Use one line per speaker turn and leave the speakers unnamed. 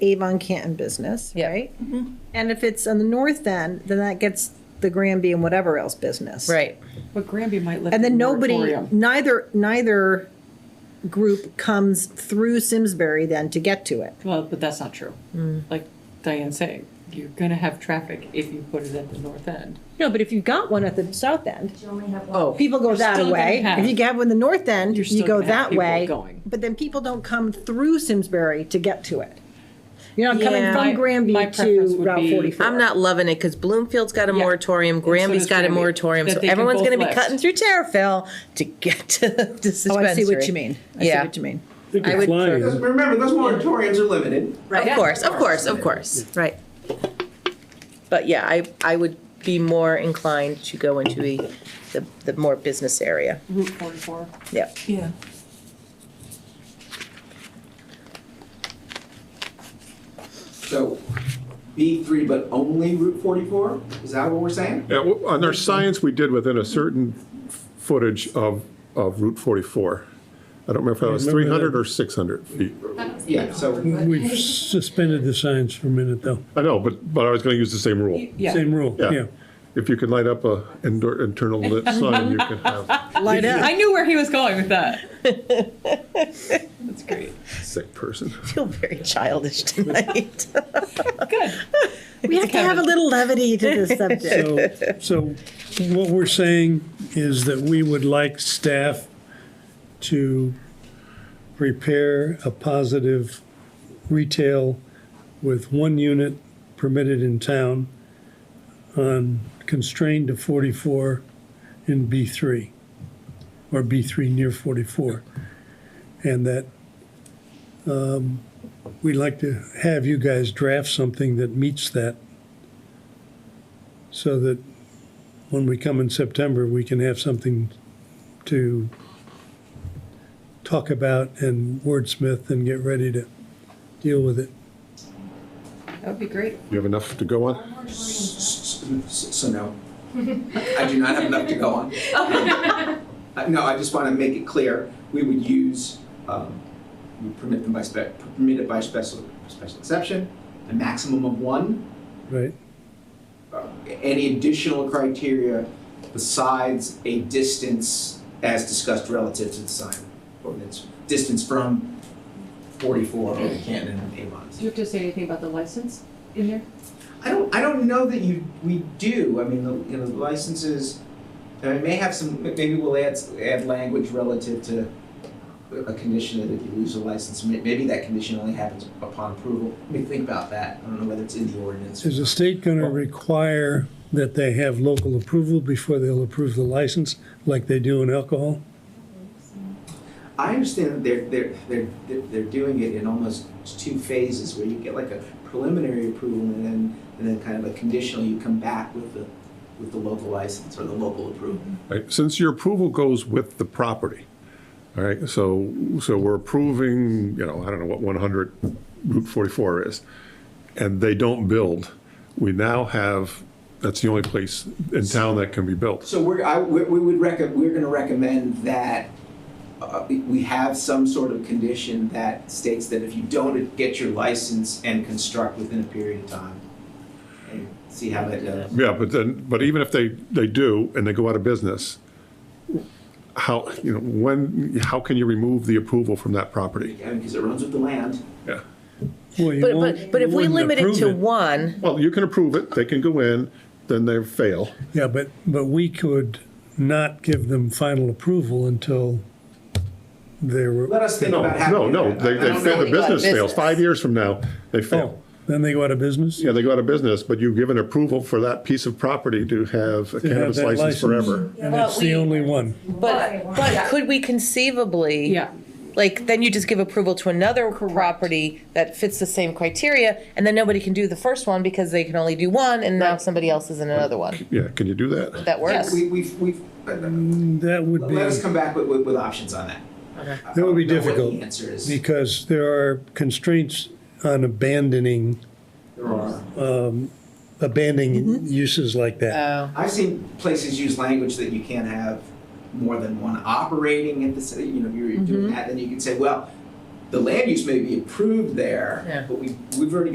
Avon Canton business,
Yep.
right?
Mm-hmm.
And if it's on the north end, then that gets the Granby and whatever else business.
Right.
But Granby might lift
And
the
then nobody,
moratorium.
neither, neither group comes through Simsbury then to get to it.
Well, but that's not true.
Mm.
Like Diane's saying, you're gonna have traffic if you put it at the north end.
No, but if you've got one at the south end,
You only have one.
Oh,
people go
You're
that
still gonna
way.
have-
If you have one in the north end,
You're
you
still
go
gonna have
that
people
way.
going.
But then people don't come through Simsbury to get to it. You're not coming
Yeah.
My-
from Granby
my preference
to
would
Route
be-
44.
I'm not loving it because Bloomfield's got a
Yeah.
moratorium,
so
Granby's
does
got a
Granby,
moratorium,
that
so
they can
everyone's
both
going to be
list.
cutting through Terrifil to get to the
Oh,
dispensary.
I see what you mean. I see
yeah,
what you mean.
think
I
you're
would-
flying.
Because remember, those moratoriums are limited.
of course, of course, of course, right. But yeah, I I would be more inclined to go into the the, the more business area.
Route 44.
Yep.
Yeah.
So B three, but only Route forty-four? Is that what we're saying?
Yeah, well, on our science, we did within a certain footage of, of Route 44. I don't remember if that was
remember
300 or 600 feet.
Yeah, so
We've suspended the signs for a minute, though.
I know, but, but I was going to use the same rule.
Yeah.
Same rule,
Yeah.
yeah.
If you can light up a indoor, internal lit sign, you can have
Light up.
I knew where he was going with that. That's great.
sick person.
I feel very childish tonight.
Good.
We have to have a little levity to this subject.
So, so what we're saying is that we would like staff to prepare a positive retail with one unit permitted in town on constrained to 44 in B3, or B3 near 44. And that um, we'd like to have you guys draft something that meets that so that when we come in September, we can have something to talk about and wordsmith and get ready to deal with it.
That would be great.
You have enough to go on?
So no. I do not have enough to go on.
Oh.
Uh, No, I just want to make it clear, we would use, um, we permit them by spec, permit it by special, special exception, a maximum of one.
Right.
Uh, Any additional criteria besides a distance as discussed relative to the sign ordinance, distance from forty-four over Canton and Avon.
Do you have to say anything about the license in there?
I don't, I don't know that you, we do, I mean, the, you know, the licenses, I may have some, maybe we'll add, add language relative to a condition that if you lose a license, may- maybe that condition only happens upon approval, let me think about that, I don't know whether it's in the ordinance.
Is the state going to require that they have local approval before they'll approve the license, like they do in alcohol?
I understand that they're, they're, they're, they're they're doing it in almost two phases, where you get like a preliminary approval and then, and then kind of a conditional, you come back with the, with the local license or the local approval.
Right, Since your approval goes with the property, all right, so, so we're approving, you know, I don't know what 100 Route 44 is, and they don't build, we now have, that's the only place in town that can be built.
So we're, I, we we would recommend, we're gonna recommend that, uh, we- we have some sort of condition that states that if you don't get your license and construct within a period of time, and see how that goes.
Yeah, but then, but even if they, they do and they go out of business, how, you know, when, how can you remove the approval from that property?
I mean, because it runs with the land.
Yeah.
Well, you
But,
won't-
but, but if
you
we
wouldn't
limit it
approve
to one,
Well, you can approve it, they can go in, then they fail.
Yeah, but, but we could not give them final approval until they were.
Let us think
No,
about how.
no,
to do
no,
that.
they,
I
they
don't
fail,
know.
the business fails,
business.
five years from now, they
Oh,
fail.
then they go out of business?
Yeah, they go out of business, but you give an approval for that piece of property to have a
have
cannabis
that
license forever.
And it's the only one.
but, but could we conceivably?
Yeah.
Like, then you just give approval to another property that fits the same criteria, and then nobody can do the first one because they can only do one, and now somebody else is in another one.
Yeah, can you do that?
That works.
We, we've, we've,
That would be.
let us come back with, with, with options on that. I
That would be
don't know what the
difficult.
answer is.
Because there are constraints on abandoning,
There are.
abandoning uses like that.
Oh,
I've seen places use language that you can't have more than one operating at the, s- you know, if you're doing that, then you can say, well, the land use may be approved there,
Yeah.
but we, we've already